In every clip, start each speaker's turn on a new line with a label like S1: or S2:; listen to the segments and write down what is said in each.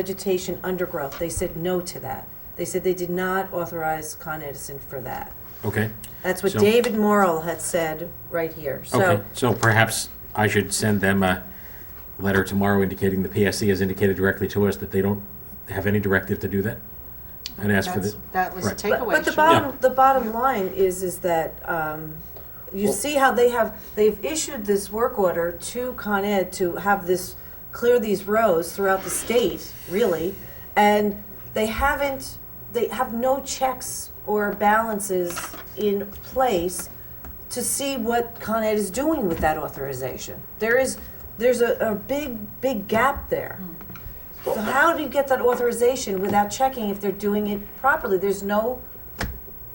S1: vegetation undergrowth, they said no to that. They said they did not authorize Con Edison for that.
S2: Okay.
S1: That's what
S2: So-
S1: David Morrell had said right here. So
S2: Okay, so perhaps I should send them a letter tomorrow indicating the PSC has indicated directly to us that they don't have any directive to do that? And ask for
S3: That's-
S2: the,
S3: That was a
S2: right.
S1: But,
S3: takeaway.
S1: but the
S3: Shouldn't-
S1: bottom, the bottom line is, is that um, you see how they have, they've issued this work order to Con Ed to have this, clear these rows throughout the state, really, and they haven't, they have no checks or balances in place to see what Con Ed is doing with that authorization. There is, there's a, a big, big gap there. So how do you get that authorization without checking if they're doing it properly? There's no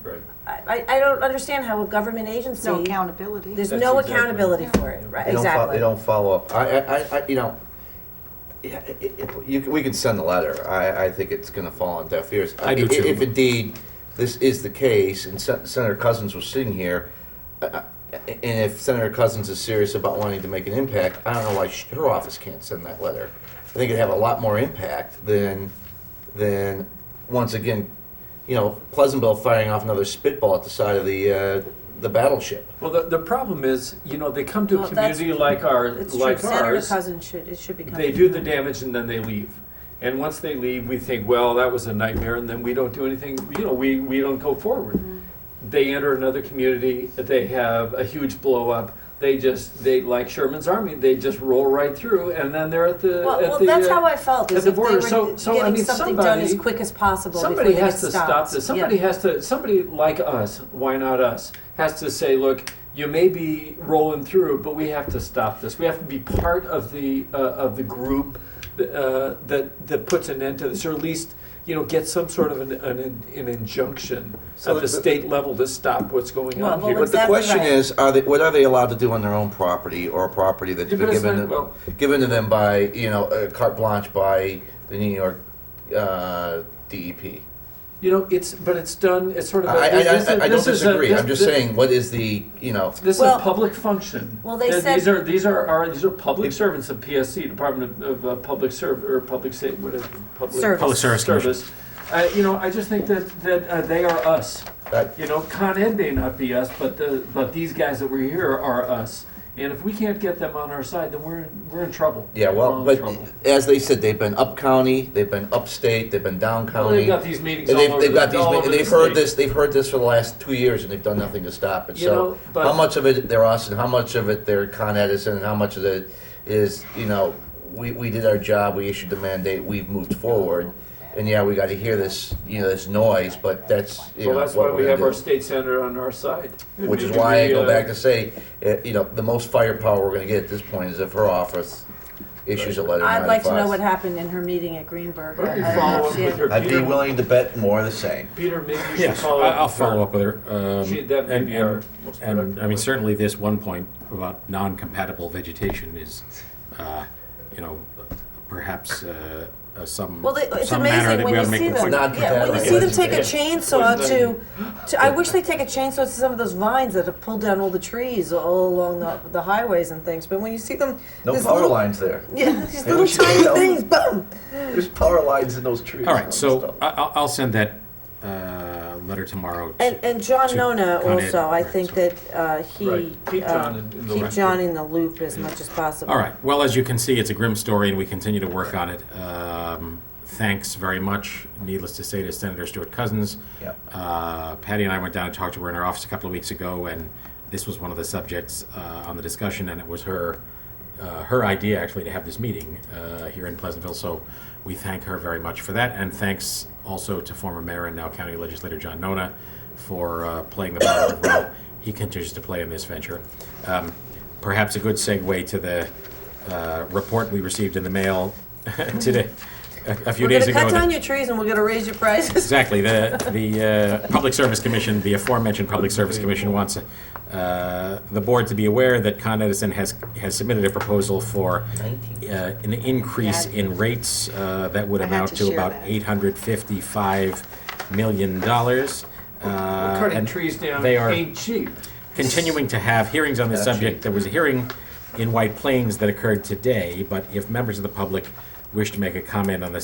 S4: Right.
S1: I, I I don't understand how a government agency,
S3: No accountability.
S1: there's
S4: That's
S1: no
S4: exactly-
S1: accountability for it, right,
S4: They don't fol-
S1: exactly.
S4: They don't follow up. I, I, I- I, you know, yeah, it- it- you, can- we can send a letter. I, I think it's gonna fall on deaf ears.
S2: I do too.
S4: If indeed this is the case, and Sen- Senator Cousins was sitting here, uh, uh, and if Senator Cousins is serious about wanting to make an impact, I don't know why sh- her office can't send that letter. I think it'd have a lot more impact than, than, once again, you know, Pleasantville firing off another spitball at the side of the, uh, the battleship.
S5: Well, the, the problem is, you know, they come to
S1: Well,
S5: a
S1: that's-
S5: community like our,
S1: It's true,
S5: like
S1: Senator
S5: ours.
S1: Cousins should, it should be coming.
S5: They do the damage and then they leave. And once they leave, we think, well, that was a nightmare, and then we don't do anything, you know, we, we don't go forward.
S1: Mm-hmm.
S5: They enter another community, they have a huge blow up, they just, they, like Sherman's Army, they just roll right through, and then they're at the,
S1: Well,
S5: at
S1: well,
S5: the.
S1: that's
S5: uh,
S1: how I felt,
S5: at
S1: is
S5: the
S1: if they
S5: border.
S1: were
S5: So- so, I
S1: getting
S5: mean,
S1: something done as
S5: somebody-
S1: quick as possible before they
S5: Somebody
S1: get
S5: has to stop
S1: stopped.
S5: this. Somebody
S1: Yeah.
S5: has to, somebody like us, why not us, has to say, look, you may be rolling through, but we have to stop this. We have to be part of the, uh, of the group uh, that, that puts an end to this, or at least, you know, get some sort of an, an, an injunction
S4: So
S5: at the
S4: the-
S5: state level to stop what's going
S1: Well,
S5: on
S1: well,
S5: here.
S4: But the
S1: Exactly
S4: question
S1: right.
S4: is, are they, what are they allowed to do on their own property or property that's
S5: Yeah,
S4: been
S5: but it's
S4: given,
S5: not- well-
S4: to- given to them by, you know, uh, carte blanche by the New York uh, DEP?
S5: You know, it's, but it's done, it's sort
S4: I,
S5: of. a-
S4: I,
S5: this is-
S4: I, I don't
S5: this is a-
S4: disagree. I'm
S5: this-
S4: just saying, what is the, you know,
S5: This
S1: Well-
S5: is a public function.
S1: Well, they
S5: Th-
S1: said-
S5: these are these are are these are public servants of PSC, Department of, of uh, Public Serv or Public Sa- what is public
S1: Service.
S2: Public Service Commission.
S5: service. Uh, you know, I just think that that uh, they are us.
S4: that,
S5: You know, Con Ed may not be us, but the but these guys that were here are us. And if we can't get them on our side, then we're in, we're in trouble.
S4: yeah,
S5: We're
S4: well,
S5: in
S4: but
S5: trouble.
S4: as they said, they've been up county, they've been upstate, they've been down
S5: Well,
S4: county.
S5: they've got these meetings
S4: And
S5: all
S4: they've,
S5: over
S4: they've got
S5: the,
S4: these,
S5: all
S4: ma-
S5: over
S4: and
S5: the
S4: they've heard
S5: state.
S4: this, they've heard this for the last two years and they've done nothing to stop it.
S5: You know,
S4: So,
S5: but-
S4: how much of it they're us and how much of it they're Con Edison and how much of it is, you know, we, we did our job, we issued the mandate, we've moved forward. And yeah, we gotta hear this, you know, this noise, but that's, you
S5: Well,
S4: know,
S5: that's why
S4: what
S5: we
S4: we're
S5: have our
S4: gonna do.
S5: state senator on our side.
S4: Which is
S5: Maybe
S4: why I
S5: we,
S4: go
S5: uh,
S4: back to say, eh, you know, the most firepower we're gonna get at this point is if her office issues a letter.
S1: I'd like to know
S4: notifying
S1: what
S4: us.
S1: happened in her meeting at Greenberg.
S5: Why don't you
S1: I don't know
S5: follow
S1: if
S5: up
S1: she
S5: with
S1: had-
S5: her
S4: I'd be
S5: Peter-
S4: willing to bet more of the same.
S5: Peter, maybe you should
S2: yes, I-
S5: follow up.
S2: I'll
S5: with
S2: follow
S5: her.
S2: up with her. um,
S5: She- that may
S2: and-
S5: be
S2: and-
S5: our most
S2: And, I mean,
S5: productive.
S2: certainly this one point about non-compatible vegetation is, uh, you know, perhaps uh, uh, some,
S1: Well, they, it's
S2: some manner
S1: amazing
S2: that
S1: when
S2: we ought
S1: you
S2: to make
S1: see them.
S2: consider.
S4: Not
S1: Yeah, when you
S4: compatible.
S1: see them take a
S5: Yeah.
S1: chainsaw
S5: Wouldn't
S1: to, to, I wish they take a chainsaw to some of those vines that have pulled down all the trees all along the, the highways and things. But when you see them,
S4: No
S1: this
S4: power
S1: little-
S4: lines there.
S1: Yeah, these
S4: Maybe
S1: little
S4: we should
S1: tiny
S4: go.
S1: things, boom.
S4: There's power lines in those trees.
S2: All right, so I, I'll- I'll send that uh, letter tomorrow.
S1: And, and John
S2: To
S1: Nona
S2: Con Ed,
S1: also, I
S2: right,
S1: think
S2: so-
S1: that uh, he.
S5: Right. Keep
S1: uh,
S5: John in- in the
S1: Keep
S5: loop.
S1: John in the loop as much as possible.
S2: All right. Well, as you can see, it's a grim story, and we continue to work on it. Um, thanks very much, needless to say, to Senator Stuart Cousins.
S4: Yep.
S2: Uh, Patty and I went down and talked to her in her office a couple of weeks ago, and this was one of the subjects uh, on the discussion, and it was her. Uh, her idea actually to have this meeting uh, here in Pleasantville, so we thank her very much for that, and thanks also to former mayor and now county legislator John Nona for uh, playing the positive role he continues to play in this venture. Um, perhaps a good segue to the uh, report we received in the mail today, a, a few
S1: We're
S2: days
S1: gonna
S2: ago.
S1: cut
S2: that-
S1: down your trees and we're gonna raise your prices.
S2: Exactly. The, the uh, Public Service Commission, the aforementioned Public Service Commission wants uh, the board to be aware that Con Edison has, has submitted a proposal for uh, an increase in rates uh, that would
S3: I had
S2: amount
S3: to
S2: to
S3: share
S2: about
S3: that.
S2: $855 million. Uh,
S5: Cutting
S2: and
S5: trees down
S2: They are
S5: ain't cheap.
S2: continuing to have hearings on this subject. There was a hearing in White Plains that occurred today, but if members of the public wish to make a comment on this